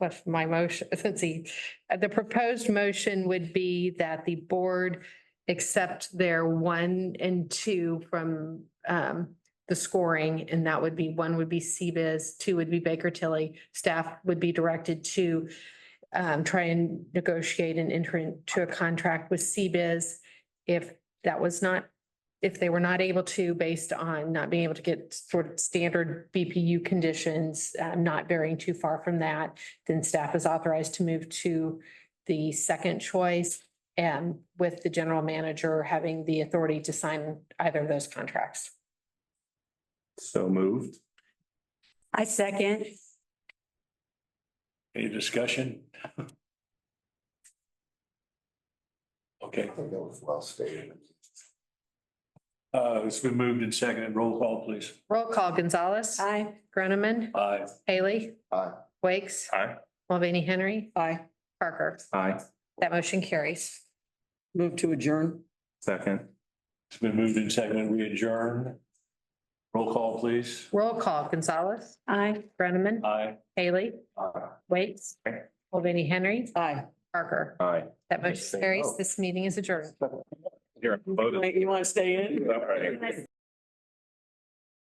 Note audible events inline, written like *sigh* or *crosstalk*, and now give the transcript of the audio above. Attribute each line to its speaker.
Speaker 1: with my motion, *laughs* let's see. Uh, The proposed motion would be that the board accept their one and two from um the scoring, and that would be, one would be CBIZ, two would be Baker Tilly. Staff would be directed to um try and negotiate and enter into a contract with CBIZ if that was not if they were not able to, based on not being able to get sort of standard BPU conditions, uh, not varying too far from that, then staff is authorized to move to the second choice and with the general manager having the authority to sign either of those contracts.
Speaker 2: So moved.
Speaker 3: I second.
Speaker 4: Any discussion? Okay,
Speaker 2: think that was well stated.
Speaker 4: uh, it's been moved and seconded. Roll call, please.
Speaker 1: Roll call Gonzalez,
Speaker 3: Aye.
Speaker 1: Groneman,
Speaker 4: Aye.
Speaker 1: Haley,
Speaker 2: Aye.
Speaker 1: Wakes,
Speaker 2: Aye.
Speaker 1: Mulvaney Henry,
Speaker 3: Aye.
Speaker 1: Parker.
Speaker 2: Aye.
Speaker 1: That motion carries.
Speaker 3: Move to adjourn.
Speaker 2: Second.
Speaker 4: It's been moved and seconded. We adjourn. Roll call, please.
Speaker 1: Roll call Gonzalez,
Speaker 3: Aye.
Speaker 1: Groneman,
Speaker 4: Aye.
Speaker 1: Haley,
Speaker 2: Aye.
Speaker 1: Wakes,
Speaker 2: Aye.
Speaker 1: Mulvaney Henry,
Speaker 3: Aye.
Speaker 1: Parker.
Speaker 2: Aye.
Speaker 1: That motion
Speaker 2: Say
Speaker 1: carries.
Speaker 2: no.
Speaker 1: This meeting is adjourned.
Speaker 2: Here, I'm voted.
Speaker 3: you want to stay in?
Speaker 2: All right.